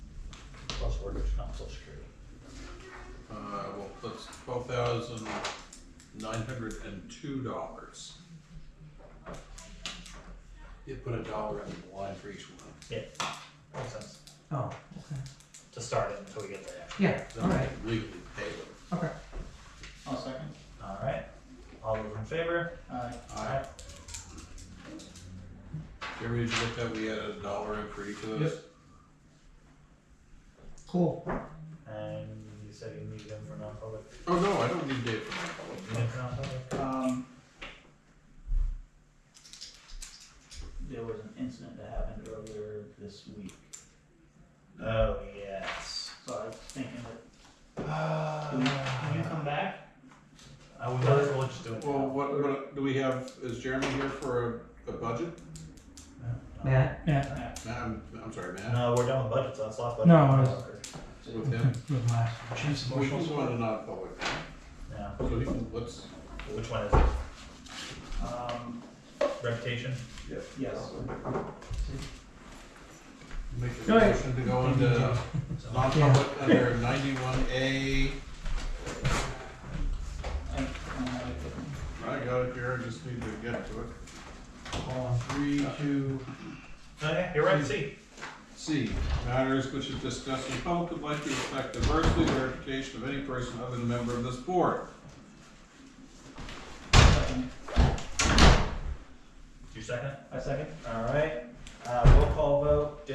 orders, not social security. Uh, well, that's twelve thousand nine hundred and two dollars. You put a dollar in the line for each one. Yeah, makes sense, Oh, okay. to start it until we get there. Yeah, all Then I right, can legally pay them. okay. I'll second. Alright, all those in favor? Aye. Aye. Jeremy, did you look that we had a dollar in for each of those? Cool. And you said you need them for non-public, Oh, no, I don't need Dave for you need them for non-public? Um, there was an incident that happened earlier this week, Oh, yes. so I was thinking that, Uh, can you, can you come back? I would, we'll just do it. that. Well, what, what, do we have, is Jeremy here for a, a budget? Matt? Yeah, Yeah, Matt, I'm, I'm sorry, Matt, No, we're done with budgets, that's last budget. No, with him. with last. She's We just wanted a non-public, Yeah, so he can, let's, which one is it? um, Reputation? yes, make a Go ahead. motion to go into non-public under ninety-one A. I, I, I got it here, I just need to get to it. Hold on, three, two, Okay, you're right, C. C, matters which is discussed in public would likely affect adversely the reputation of any person other than a member of this board. second, Your second? I second. Alright, uh, roll call vote,